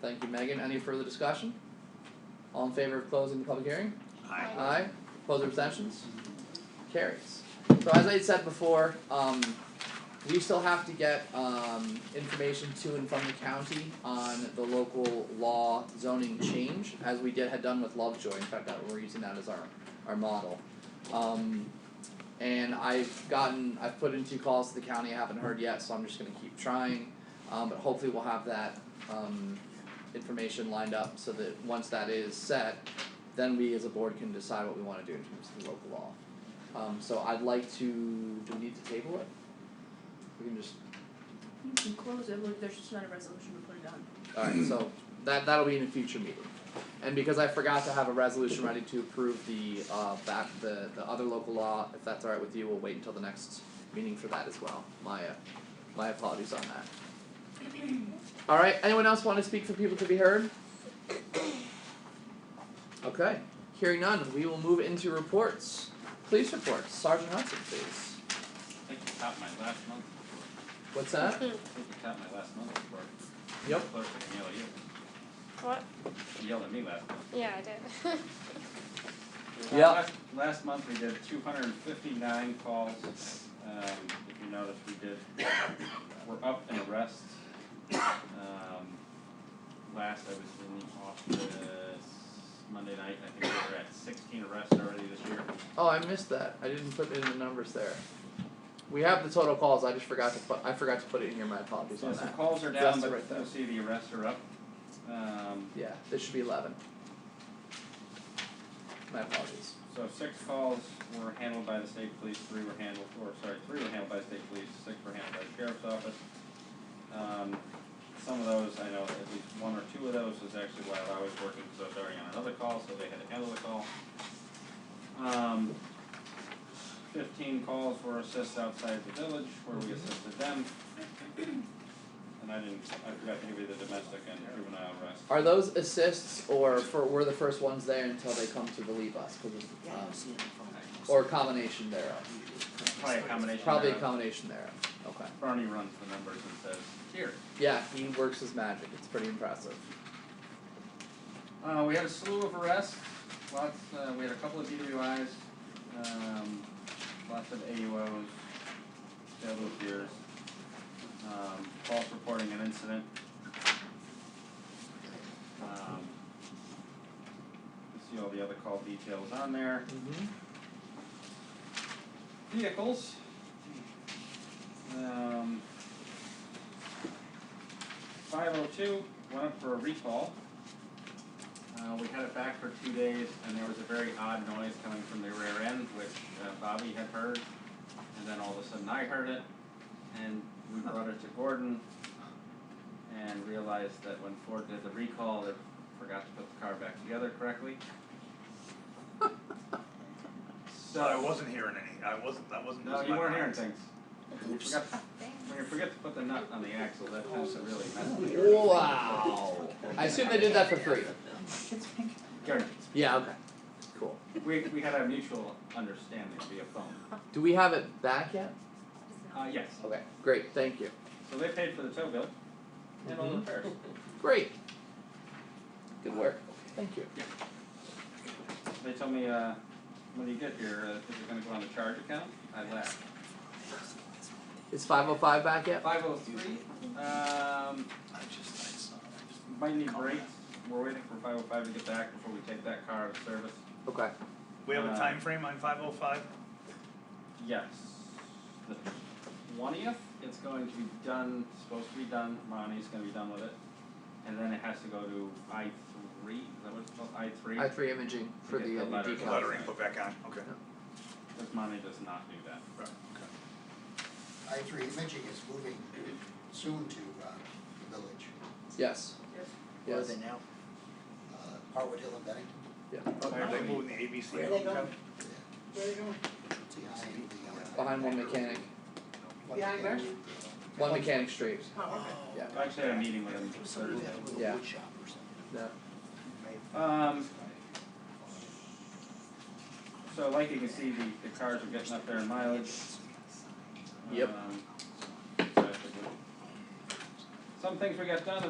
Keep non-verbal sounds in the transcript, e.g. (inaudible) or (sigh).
Thank you, Megan. Any further discussion? All in favor of closing the public hearing? Aye. Aye, opposed or abstentions? Carries. So as I had said before, um, we still have to get, um, information to and from the county on the local law zoning change, as we did, had done with Lovejoy, in fact, that, we're using that as our, our model. Um, and I've gotten, I've put in two calls to the county, I haven't heard yet, so I'm just gonna keep trying, um, but hopefully we'll have that, um, information lined up, so that once that is set, then we as a board can decide what we wanna do in terms of the local law. Um so I'd like to, do we need to table it? We can just, You can close it, look, there's just not a resolution to put it on. alright, so that that'll be in a future meeting. And because I forgot to have a resolution ready to approve the uh back the the other local law, if that's alright with you, we'll wait until the next meeting for that as well. My uh, my apologies on that. Alright, anyone else wanna speak for people to be heard? Okay, hearing none, we will move into reports. Police reports, Sergeant Hudson, please. I think you topped my last month report. What's that? I think you topped my last month report. Yep. Clerk can yell at you. What? You yelled at me last month. Yeah, I did. (laughs) Uh, Yeah. Last, last month, we did two hundred and fifty-nine calls. Um, if you notice, we did, we're up in arrests. Um, last, I was in the office Monday night, I think we were at sixteen arrests already this year. Oh, I missed that. I didn't put in the numbers there. We have the total calls. I just forgot to put. I forgot to put it in here. My apologies So on some that. calls are That's down, but right there. you'll see the arrests are up. Um, Yeah, this should be eleven. My apologies. So six calls were handled by the state police, three were handled, or sorry, three were handled by the state police, six were handled by the sheriff's office. Um, some of those, I know at least one or two of those is actually while I was working, because I was already on another call, so they had to handle the call. Um, fifteen calls were assists outside the village, where we assisted them. And I didn't, I forgot to give you the domestic and juvenile arrest. Are those assists or for we're the first ones there until they come to relieve us? 'cause it's, um, or a combination thereof. Probably a combination Probably a thereof. combination thereof. Okay. Bernie runs the numbers and says, here, Yeah, he works his magic. It's pretty impressive. Uh, we had a slew of arrests, lots, uh, we had a couple of DWIs, um, lots of AUOs, failed to appears, um, false reporting an incident. Um, you see all the other call details on there. Mm-hmm. Vehicles. Um, five oh two went up for a recall. Uh, we had it back for two days, and there was a very odd noise coming from the rear end, which uh, Bobby had heard, and then all of a sudden I heard it, and we brought it to Gordon, and realized that when Ford did the recall, they forgot to put the car back together correctly. So I wasn't hearing any, I wasn't, that wasn't. No, was you my weren't hearing mind. things. You forgot to When you forget to put the nut on the axle, that tends to really mess with your. Wow. I assume they did that for free. Gary, Yeah. Okay. Cool. we, we had a mutual understanding via phone. Do we have it back yet? Uh, yes, Okay. Great. Thank you. so they paid for the tow bill and all the Mhm. repairs. Great. Good work. Thank you. They told me, uh, when you get here, uh, is it gonna go on the charge account? I laughed. Is five oh five back yet? Five oh three, um, I just, I saw, I just. might need brakes, we're waiting for five oh five to get back before we take that car out of service. Okay. We have a Uh, time frame on five oh five? Yes, the twentieth, it's going to be done, supposed to be done, Ronnie's gonna be done with it. And then it has to go to I three, is that what it's called, I three? I three imaging for Get the the uh, new letter- decals. letter. Lettering put back on, okay. Because Monty does not do that. Right, okay. I three imaging is moving soon to uh the village, Yes. Yes. now? uh Harwood Hill and Bennington. Are they Probably. moving the ABC? Where are they going? It's behind the uh. Behind one mechanic, one Behind where? mechanic. one mechanic street. Oh, Yeah. I actually had a meeting with him Thursday. Yeah. wood shop or something. No. Um, so like you can see, the, the cars are getting up there in mileage. Yep. Um, so that's a good- Some things we got done, the